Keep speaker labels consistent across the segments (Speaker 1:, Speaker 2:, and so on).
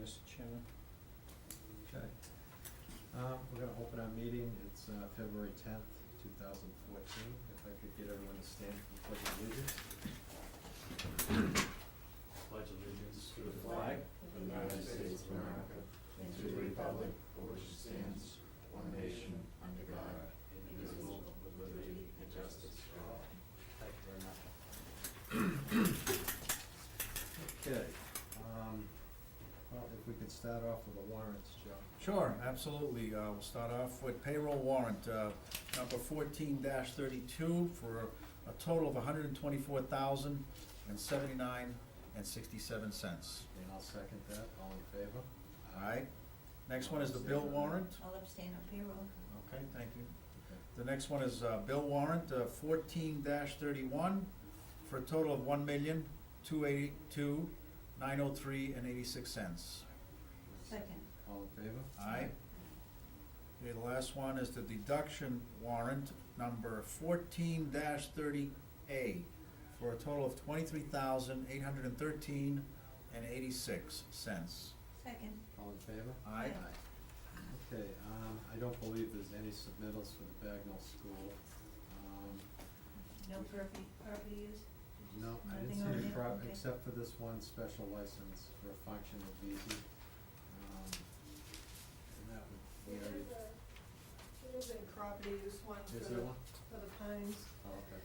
Speaker 1: Mr. Chairman.
Speaker 2: Okay. Um, we're gonna open our meeting, it's, uh, February tenth, two thousand fourteen, if I could get everyone to stand for the pledge of allegiance.
Speaker 3: Pledge allegiance to the
Speaker 1: flag
Speaker 3: of the United States of America and to the republic for which it stands, one nation, under God, indivisible, with liberty and justice for all.
Speaker 1: Thank you very much.
Speaker 2: Okay, um, well, if we could start off with the warrants, Joe.
Speaker 4: Sure, absolutely. Uh, We'll start off with payroll warrant, uh, number fourteen thirty-two for a total of hundred and twenty-four thousand and seventy-nine and sixty-seven cents.
Speaker 2: And I'll second that, all in favor?
Speaker 4: All right? Next one is the bill warrant.
Speaker 5: I'll abstain on payroll.
Speaker 4: Okay, thank you.
Speaker 2: Okay.
Speaker 4: The next one is uh, bill warrant fourteen thirty-one for a total of one million, two eighty-two, nine oh three and eighty-six cents.
Speaker 5: Second,
Speaker 2: All in favor?
Speaker 4: Aye. Okay, the last one is the deduction warrant number fourteen thirty A for a total of twenty-three thousand eight hundred and thirteen and eighty-six cents.
Speaker 5: second,
Speaker 2: All in favor?
Speaker 4: Aye.
Speaker 5: Aye.
Speaker 2: Okay, um, I don't believe there's any submittals for the Bagnell School. Um,
Speaker 5: no property, property use? Did you-
Speaker 2: No, I didn't
Speaker 5: nothing
Speaker 2: see
Speaker 5: over
Speaker 2: any
Speaker 5: there?
Speaker 2: prob,
Speaker 5: Okay.
Speaker 2: except for this one special license for a function of VZ. Um, and that would, we
Speaker 6: There's
Speaker 2: already,
Speaker 6: a, there's a property use one for
Speaker 2: is
Speaker 6: the,
Speaker 2: there one?
Speaker 6: for the Pines,
Speaker 2: Oh, okay.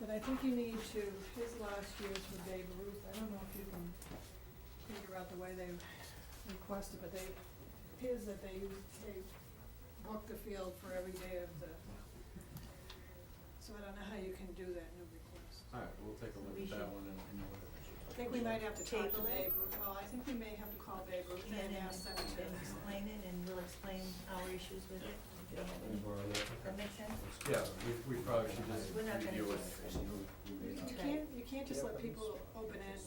Speaker 6: but I think you need to, his last year's for Babe Ruth, I don't know if you can figure out the way they requested, but they, it appears that they, they booked the field for every day of the, so I don't know how you can do that new request.
Speaker 2: All right, we'll take a look
Speaker 5: We
Speaker 2: at that
Speaker 5: should-
Speaker 2: one and, and
Speaker 6: I think we might have to talk to
Speaker 5: Table it.
Speaker 6: Babe Ruth, well, I think we may have to call Babe Ruth
Speaker 5: Yeah,
Speaker 6: and
Speaker 5: and
Speaker 6: ask them to.
Speaker 5: and explain it, and we'll explain our issues with it.
Speaker 1: Yeah.
Speaker 5: Does that make sense?
Speaker 2: Yeah, we, we probably should just
Speaker 5: We're not gonna
Speaker 2: review it.
Speaker 5: just-
Speaker 2: and you- you may not-
Speaker 6: You can't, you can't just let people open end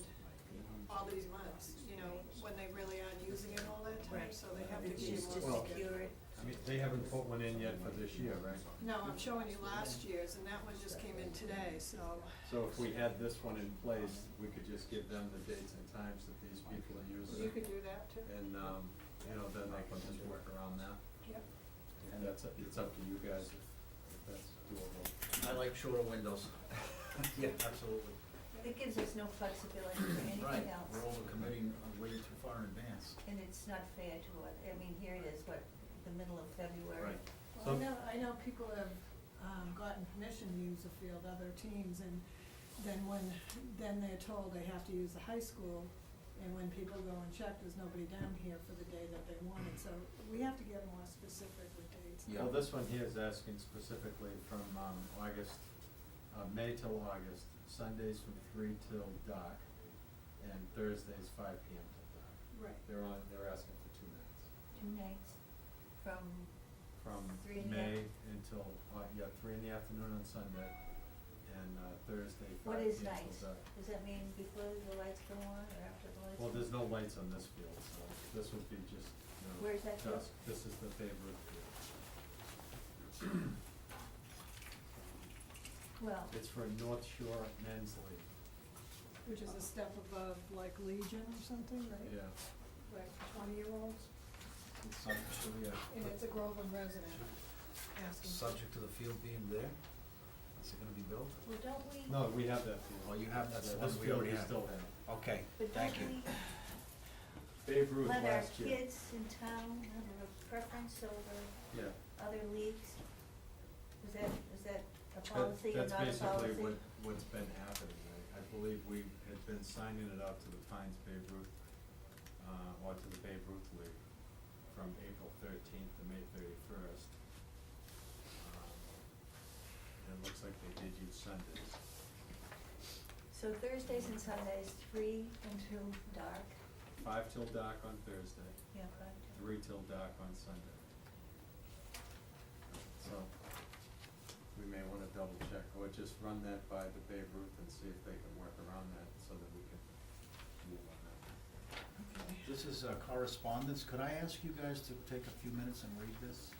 Speaker 6: all these months, you know, when they really aren't using it all that time,
Speaker 5: Right.
Speaker 6: so they have to
Speaker 5: It's
Speaker 6: be
Speaker 5: just to
Speaker 2: Well-
Speaker 6: more.
Speaker 5: secure it.
Speaker 2: I mean, they haven't put one in yet for this year, right?
Speaker 6: No, I'm showing you last year's, and that one just came in today, so,
Speaker 2: So if we had this one in place, we could just give them the dates and times that these people are using.
Speaker 6: you
Speaker 2: it.
Speaker 6: could do that too.
Speaker 2: And, um, you know, then they can just work around that.
Speaker 6: Yep.
Speaker 2: And that's, it's up to you guys if if that's doable.
Speaker 4: I like shorter windows. Yeah, absolutely.
Speaker 5: It gives us no flexibility for
Speaker 4: Right,
Speaker 5: anything
Speaker 4: we're
Speaker 5: else,
Speaker 4: overcommitting uh, way too far in advance.
Speaker 5: and it's not fair to, us. I mean, here it is, what, the middle of February?
Speaker 4: Right.
Speaker 6: Well, I know, I know people have, um, gotten permission to use the field, other teams, and then when, then they're told they have to use the high school, and when people go and check, there's nobody down here for the day that they wanted, so we have to get more specific with dates.
Speaker 4: Yeah.
Speaker 2: Well, this one here is asking specifically from, um, August, uh, May till August, Sundays from three till dark, and Thursdays five P M till dark.
Speaker 6: Right.
Speaker 2: They're on, they're asking for two nights,
Speaker 5: Two nights from,
Speaker 2: from
Speaker 5: Three in the
Speaker 2: May
Speaker 5: af-
Speaker 2: until, uh, yeah, three in the afternoon on Sunday, and, uh, Thursday
Speaker 5: what
Speaker 2: five P M
Speaker 5: is
Speaker 2: till dark.
Speaker 5: nights? Does that mean before the lights go on or after the lights?
Speaker 2: Well,
Speaker 5: go
Speaker 2: there's
Speaker 5: on?
Speaker 2: no lights on this field, so this would be just, you know,
Speaker 5: Where's that field?
Speaker 2: dusk. This is the favorite field.
Speaker 5: Well,
Speaker 2: It's for North Shore Men's League,
Speaker 6: Which is a step above like Legion or something, right?
Speaker 2: yeah.
Speaker 6: Like twenty-year-olds,
Speaker 2: It's something, yeah.
Speaker 6: and it's a Groveland resident asking.
Speaker 4: Subject to the field being there, is it gonna be built?
Speaker 5: well, don't we?
Speaker 2: No, we have that field.
Speaker 4: Oh, you have that
Speaker 2: Yeah,
Speaker 4: one
Speaker 2: this
Speaker 4: we
Speaker 2: field
Speaker 4: already have.
Speaker 2: still have.
Speaker 4: Okay,
Speaker 5: But
Speaker 4: thank you.
Speaker 5: don't we
Speaker 2: Babe Ruth
Speaker 5: let our
Speaker 2: last year.
Speaker 5: kids in town have a preference over
Speaker 2: Yeah.
Speaker 5: other leagues? Is that, is that a
Speaker 2: That-
Speaker 5: policy or not a policy?
Speaker 2: That's basically what, what's been happening. I, I believe we had been signing it out to the Pines Babe Ruth, uh, or to the Babe Ruth League from April thirteenth to May thirty-first. Um, And it looks like they did use Sundays.
Speaker 5: So Thursdays and Sundays, three until dark,
Speaker 2: Five till dark on Thursday,
Speaker 5: yeah, five
Speaker 2: three till dark on Sunday. So, we may wanna double check, or just run that by the Babe Ruth and see if they can work around that, so that we can move on that.
Speaker 4: This is uh, correspondence. Could I ask you guys to take a few minutes and read this?